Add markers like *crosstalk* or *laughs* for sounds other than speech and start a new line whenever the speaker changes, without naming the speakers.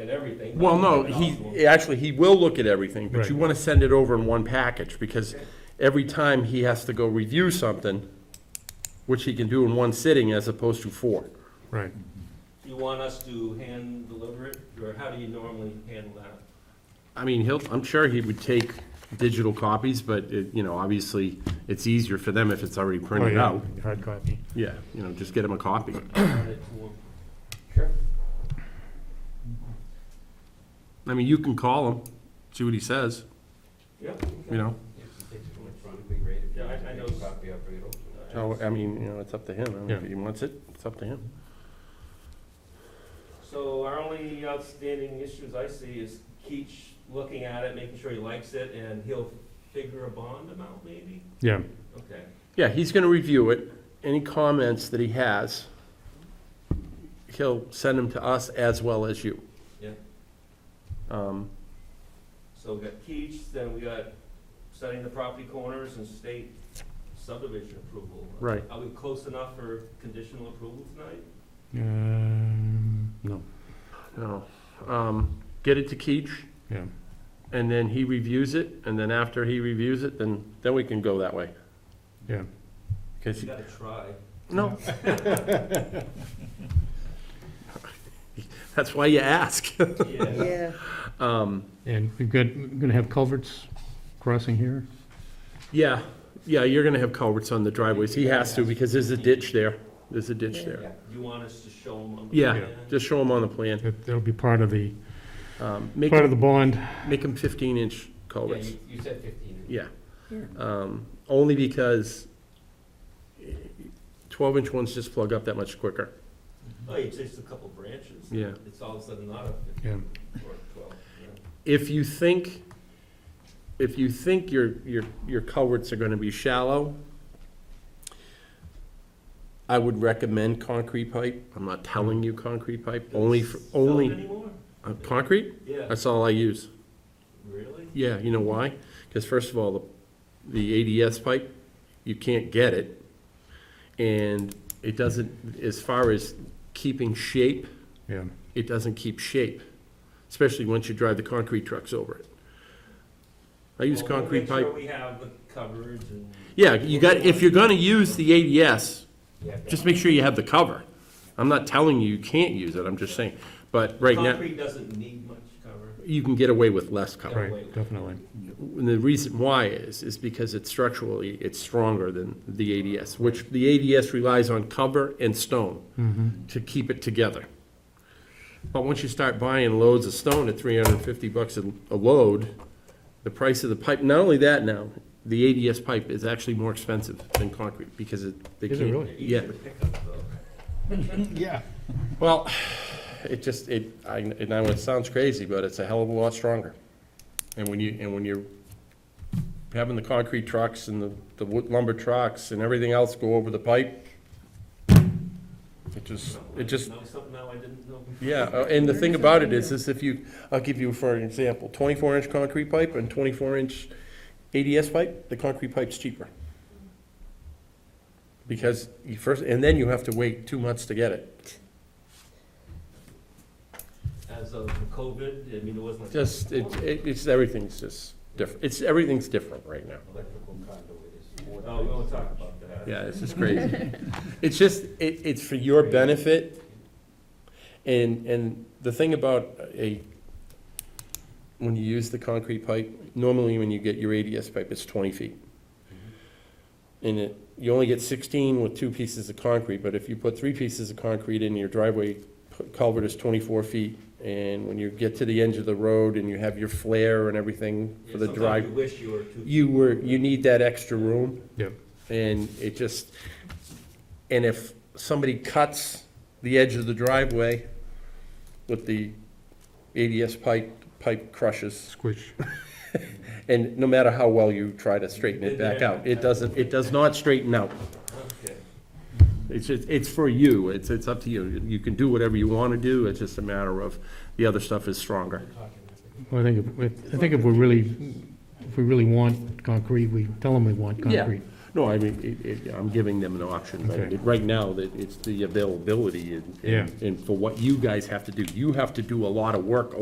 at everything. but
Well,
I'm
no,
giving it off to
he,
him.
actually, he will look at everything, but
Right.
you want to send it over in one package, because every time he has to go review something, which he can do in one sitting as opposed to four.
Right.
You want us to hand deliver it, or how do you normally handle
*clears throat*
that?
I mean, he'll, I'm sure he would take digital copies, but, it- you know, obviously, it's easier for them if it's already
Oh,
printed
yeah,
out.
Hard copy.
Yeah, you know, just get him a copy.
Hand it to him?
I mean, you can call him, see what he says,
Yeah.
you know?
Yeah, I, I know.
So, uh, I mean, you know, it's up to him. I mean, If
Yeah.
he wants it, it's up to him.
So our only outstanding issues I see is Keach looking at it, making sure he likes it, and he'll figure a bond amount maybe?
Yeah,
Okay.
Yeah, he's gonna review it. Any comments that he has, he'll send them to us as well as you.
Yeah.
Um,
So we got Keach, then we got setting the property corners and state subdivision approval.
Right.
Are we close enough for conditional approval tonight?
um, no,
no, um, get it to Keach,
yeah,
and then he reviews it, and then after he reviews it, then, then we can go that way.
yeah.
'Cause
You *laughs*
he-
gotta try.
no. That's why you ask. *laughs*
Yeah.
Um,
And we've got, we're gonna have culverts crossing here?
yeah, yeah, you're gonna have culverts on the driveways. He has to, because there's a ditch there. There's a ditch there.
You want us to show them on the
Yeah,
plan?
just show them on the plan.
That, that'll be part of the,
Um, Make,
part of the bond.
make them 15-inch culverts,
you said fifteen.
yeah. Um, Only because 12-inch ones just plug up that much quicker.
Oh, it's just a couple branches.
Yeah.
It's all of a sudden not a
Yeah.
fifteen or twelve, yeah.
If you think, if you think your, your, your culverts are gonna be shallow, I would recommend concrete pipe. I'm not
Mm.
telling you concrete pipe, only, for
Don't
only,
anymore?
uh, concrete?
Yeah,
That's all I use.
really?
Yeah, you know why? Because first of all, the, the ADS pipe, you can't get it. And it doesn't, as far as keeping shape,
Yeah,
it doesn't keep shape, especially once you drive the concrete trucks over it. I use
Well, we'll
concrete
make sure
pipe.
we have the coverage and.
Yeah, you got, if you're gonna use the ADS, just make sure you have the cover. I'm not telling you you can't use it, I'm just saying, but right now,
Concrete doesn't need much cover.
you can get away with less cover.
right, definitely.
And the reason why is, is because it's structurally, it's stronger than the ADS, which the ADS relies on cover and stone
Mm-hmm.
to keep it together. But once you start buying loads of stone at three hundred and fifty bucks a a load, the price of the pipe, not only that now, the ADS pipe is actually more expensive than concrete because it, they
Is
can't.
it really?
Yeah,
Easier to pick up though.
Yeah.
well, it just, it, I, and I know it sounds crazy, but it's a hell of a lot stronger. And when you, and when you're having the concrete trucks and the, the wood lumber trucks and everything else go over the pipe, it just, it just,
Know something now I didn't know before.
yeah, uh, and the thing about it is, is if you, I'll give you for an example, twenty-four inch concrete pipe and twenty-four inch ADS pipe, the concrete pipe's cheaper. Because you first, and then you have to wait two months to get it.
As of COVID, I mean, it wasn't.
Just, it, it- it's, everything's just different, it's, everything's different right now.
Electrical conduit is. Oh, we won't talk about that.
Yeah, it's just crazy. *laughs* It's just, it, it's for your benefit, and, and the thing about a, when you use the concrete pipe, normally when you get your ADS pipe, it's twenty feet. And it, you only get sixteen with two pieces of concrete, but if you put three pieces of concrete in your driveway, culvert is twenty-four feet, and when you get to the end of the road and you have your flare and everything
Yeah,
for the
sometimes
drive,
you wish you were too.
you were, you need that extra room.
Yep.
And it just, and if somebody cuts the edge of the driveway with the ADS pipe, pipe crushes,
Squish.
and no matter how well you try to straighten it back out, it doesn't, it does not straighten out.
Okay.
It's, just- it's for you, it's, it's up to you. You can do whatever you want to do, it's just a matter of, the other stuff is stronger.
Well, I think, if- if- I think if we're really, if we really want concrete, we tell them we want
Yeah.
concrete.
No, I mean, it, it, I'm giving them an option, but
Okay.
it- right now, that it's the availability and,
Yeah.
and and for what you guys have to do. You have to do a lot of work